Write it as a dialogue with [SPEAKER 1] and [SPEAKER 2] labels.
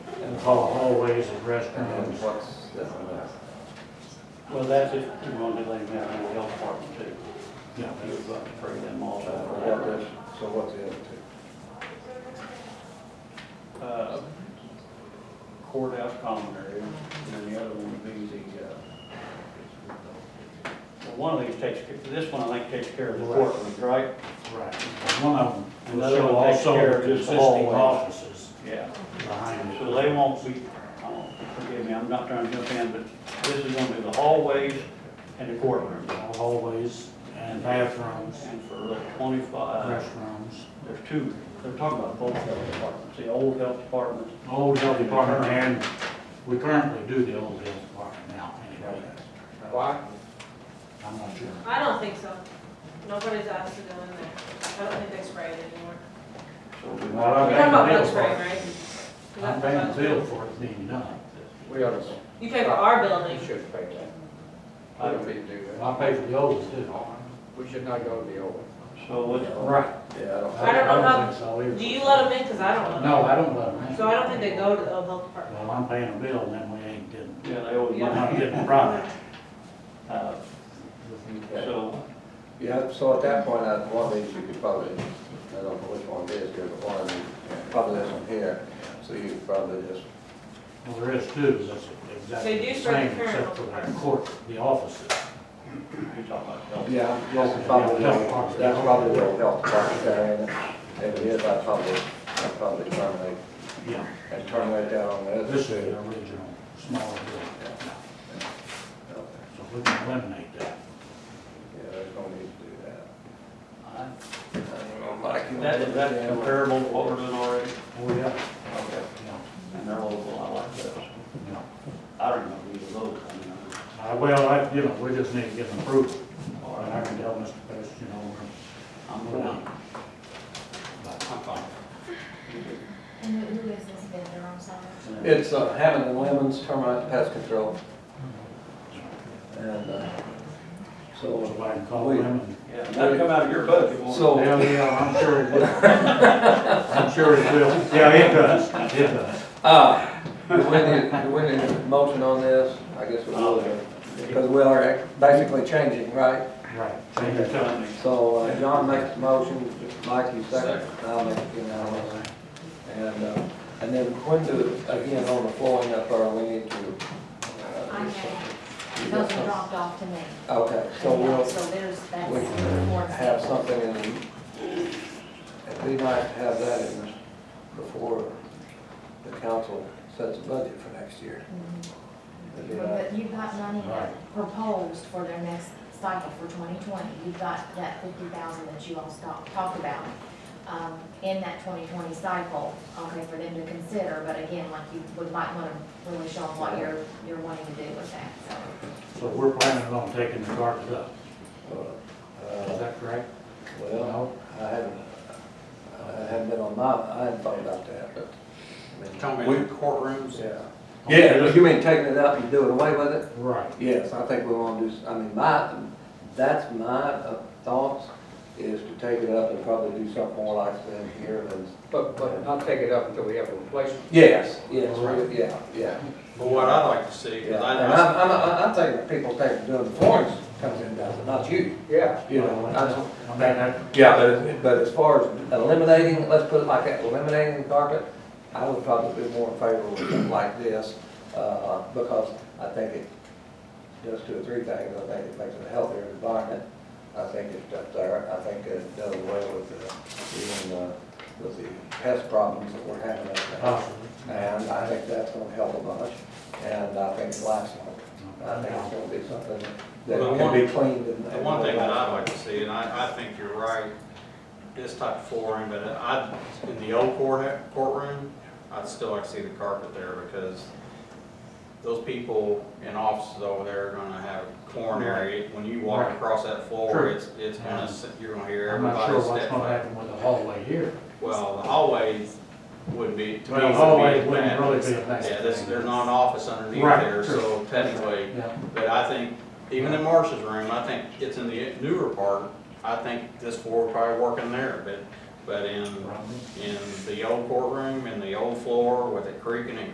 [SPEAKER 1] hall- hallways and
[SPEAKER 2] And then
[SPEAKER 1] restrooms.
[SPEAKER 2] what's this and that?
[SPEAKER 3] Well, that's if you're going to lay them out in the health department too.
[SPEAKER 1] Yeah.
[SPEAKER 3] You're about to free them all
[SPEAKER 2] Uh,
[SPEAKER 3] out.
[SPEAKER 2] yeah, there's- So what's the other two?
[SPEAKER 3] Uh, courthouse common area, and then the other one would be the, uh, well, one of these takes, this one I think takes care of the
[SPEAKER 1] Right.
[SPEAKER 3] courtrooms, right?
[SPEAKER 1] Right. One of them. will
[SPEAKER 3] Another
[SPEAKER 1] show
[SPEAKER 3] one takes
[SPEAKER 1] also
[SPEAKER 3] care of
[SPEAKER 1] the
[SPEAKER 3] just the
[SPEAKER 1] existing
[SPEAKER 3] hallway.
[SPEAKER 1] offices
[SPEAKER 3] Yeah.
[SPEAKER 1] behind
[SPEAKER 3] So
[SPEAKER 1] it.
[SPEAKER 3] they won't be, oh, forgive me, I'm not trying to jump in, but this is gonna be the hallways and the courtroom.
[SPEAKER 1] All Hallways and bathrooms,
[SPEAKER 3] And for like twenty-five,
[SPEAKER 1] restrooms.
[SPEAKER 3] there's two, they're talking about both health departments, the old health department
[SPEAKER 1] Old health department and we currently do the old health department now anyway.
[SPEAKER 2] Why?
[SPEAKER 1] I'm not sure.
[SPEAKER 4] I don't think so. Nobody's asked to go in there. I don't think they spray it anymore.
[SPEAKER 2] So we
[SPEAKER 1] Well,
[SPEAKER 2] might,
[SPEAKER 1] I'm-
[SPEAKER 4] You're talking about bug spray, right? You're
[SPEAKER 1] I'm
[SPEAKER 4] talking
[SPEAKER 1] paying
[SPEAKER 4] about
[SPEAKER 1] the bill for it being done.
[SPEAKER 2] we ought to,
[SPEAKER 4] You pay for our building.
[SPEAKER 2] we should pay that.
[SPEAKER 3] I
[SPEAKER 2] I
[SPEAKER 3] don't-
[SPEAKER 2] don't need to do
[SPEAKER 1] I
[SPEAKER 2] that.
[SPEAKER 1] pay for the old too.
[SPEAKER 2] We should not go to the old.
[SPEAKER 3] So what's,
[SPEAKER 1] Right.
[SPEAKER 2] Yeah, I don't.
[SPEAKER 4] I don't know how-
[SPEAKER 1] think so either.
[SPEAKER 4] Do you let them in? Because I don't let them
[SPEAKER 1] No, I don't let them
[SPEAKER 4] in.
[SPEAKER 1] in.
[SPEAKER 4] So I don't think they go to the old health department.
[SPEAKER 1] Well, I'm paying a bill and then we ain't getting,
[SPEAKER 3] yeah, they always
[SPEAKER 1] we're not
[SPEAKER 3] mind.
[SPEAKER 1] getting product.
[SPEAKER 3] Uh, So,
[SPEAKER 2] Yeah, so at that point, I- one of these you could probably, I don't know which one it is, but one, of these- probably this one here, so you could probably just,
[SPEAKER 1] Well, there is two, that's exactly
[SPEAKER 4] They
[SPEAKER 1] the
[SPEAKER 4] do start
[SPEAKER 1] same
[SPEAKER 4] the current
[SPEAKER 1] except for
[SPEAKER 4] one
[SPEAKER 1] the
[SPEAKER 4] first.
[SPEAKER 1] court, the offices.
[SPEAKER 3] you're talking about health.
[SPEAKER 2] yeah, that's probably, that's probably the old health department there, and if it is, I'd probably, I'd probably terminate,
[SPEAKER 1] Yeah,
[SPEAKER 2] and terminate that on the other
[SPEAKER 1] this is the
[SPEAKER 2] side.
[SPEAKER 1] original smaller building.
[SPEAKER 2] Yeah,
[SPEAKER 1] So we can eliminate that.
[SPEAKER 2] there's no need to do that. I
[SPEAKER 3] I-
[SPEAKER 2] don't know, Mike, you
[SPEAKER 3] That,
[SPEAKER 2] want to-
[SPEAKER 3] that's comparable to what we're doing already,
[SPEAKER 1] Oh, yeah.
[SPEAKER 2] Okay.
[SPEAKER 1] Yeah,
[SPEAKER 3] and they're local, I like those.
[SPEAKER 1] yeah.
[SPEAKER 3] I don't know, we use those, I mean,
[SPEAKER 1] Uh, Well, I, you know, we just need to get them approved.
[SPEAKER 3] I'm, all
[SPEAKER 1] And I
[SPEAKER 3] right,
[SPEAKER 1] can tell Mr. Best, you know, we're- we're
[SPEAKER 3] I'm going,
[SPEAKER 1] not. But
[SPEAKER 3] I'm fine.
[SPEAKER 5] And who who is this vendor, I'm sorry?
[SPEAKER 2] It's uh, Hammond and Lemons, termite pest control. And, uh, so,
[SPEAKER 1] if I can call them and
[SPEAKER 3] Oh, Yeah, Oh. and that'll come out of your budget, won't it?
[SPEAKER 2] so.
[SPEAKER 1] Yeah, yeah, I'm sure it will. I'm sure it will. Yeah, it does, it does.
[SPEAKER 2] Ah, we need, we need a motion on this, I guess we
[SPEAKER 3] Oh,
[SPEAKER 2] will, because we are basically changing, right?
[SPEAKER 1] Right. Thank you, Tony.
[SPEAKER 2] So, uh, John makes the motion, Mike, you second, I'll make it unanimous. And, uh, and then when do, again, on the flooring up there, we need to. uh,
[SPEAKER 5] I
[SPEAKER 2] You
[SPEAKER 5] have,
[SPEAKER 2] got
[SPEAKER 5] those
[SPEAKER 2] some?
[SPEAKER 5] were dropped off to me.
[SPEAKER 2] Okay, so we'll,
[SPEAKER 5] So there's, that's.
[SPEAKER 2] we can have something in, it'd be nice to have that in this before the council sets a budget for next year.
[SPEAKER 5] Mhm.
[SPEAKER 2] It'd be nice.
[SPEAKER 5] But you've got money
[SPEAKER 1] Right.
[SPEAKER 5] proposed for their next cycle for twenty twenty. You've got that fifty thousand that you all stopped, talked about, um, in that twenty twenty cycle, okay, for them to consider, but again, like you would might wanna really show them what you're, you're wanting to do with that, so.
[SPEAKER 1] So we're planning on taking the carpet up, is
[SPEAKER 2] Uh,
[SPEAKER 1] that correct?
[SPEAKER 2] Well, Uh, I haven't, I haven't been on my, I hadn't thought about that, but. I mean,
[SPEAKER 6] Talking about the courtrooms,
[SPEAKER 2] Yeah. Yeah, you mean taking it out and doing away with it?
[SPEAKER 1] Right.
[SPEAKER 2] Yes, I think we want to do, s- I mean, my, that's my uh, thoughts, is to take it up and probably do something more like that here than.
[SPEAKER 7] But, but not take it up until we have a replacement.
[SPEAKER 2] Yes, yes, we- yeah, yeah.
[SPEAKER 6] but what I'd like to see,
[SPEAKER 2] Yeah,
[SPEAKER 6] because
[SPEAKER 2] and
[SPEAKER 6] I
[SPEAKER 2] I'm,
[SPEAKER 6] know,
[SPEAKER 2] I'm, I'm- I'm thinking people think doing the forms comes in, does it, not you,
[SPEAKER 7] Yeah,
[SPEAKER 2] you know?
[SPEAKER 1] I
[SPEAKER 2] that's-
[SPEAKER 1] mean, that,
[SPEAKER 2] Yeah, but, but as far as eliminating, let's put it like that, eliminating the carpet, I would probably be more in favor of something like this, uh, because I think it does two or three things. I think it makes it a healthier environment. I think it's up there, I think it does away with the, even, uh, with the pest problems that we're having up there.
[SPEAKER 1] possibly.
[SPEAKER 2] And I think that's gonna help a bunch, and I think it lasts longer. I think it's gonna be something that
[SPEAKER 6] Well, the
[SPEAKER 2] can be
[SPEAKER 6] one-
[SPEAKER 2] cleaned and.
[SPEAKER 6] the one thing that I'd like to see, and I, I think you're right, this type of flooring, but I, in the old court, courtroom, I'd still like to see the carpet there, because those people in offices over there are gonna have a coronary, when you walk
[SPEAKER 1] Right.
[SPEAKER 6] across that
[SPEAKER 1] True.
[SPEAKER 6] floor, it's, it's gonna, s- you're gonna hear
[SPEAKER 1] I'm not sure
[SPEAKER 6] everybody's
[SPEAKER 1] what's
[SPEAKER 6] step.
[SPEAKER 1] gonna happen with the hallway here.
[SPEAKER 6] Well, the hallway would be, to me,
[SPEAKER 1] Well, the
[SPEAKER 6] would
[SPEAKER 1] hallway
[SPEAKER 6] be a
[SPEAKER 1] wouldn't
[SPEAKER 6] bad.
[SPEAKER 1] really be a bad
[SPEAKER 6] Yeah, this,
[SPEAKER 1] thing.
[SPEAKER 6] there's not an office underneath
[SPEAKER 1] Right,
[SPEAKER 6] there,
[SPEAKER 1] true.
[SPEAKER 6] so technically,
[SPEAKER 1] Yeah,
[SPEAKER 6] but I think, even in Marsh's room, I think it's in the newer part, I think this floor would probably work in there, but, but in,
[SPEAKER 1] probably.
[SPEAKER 6] in the old courtroom, in the old floor, with it creaking and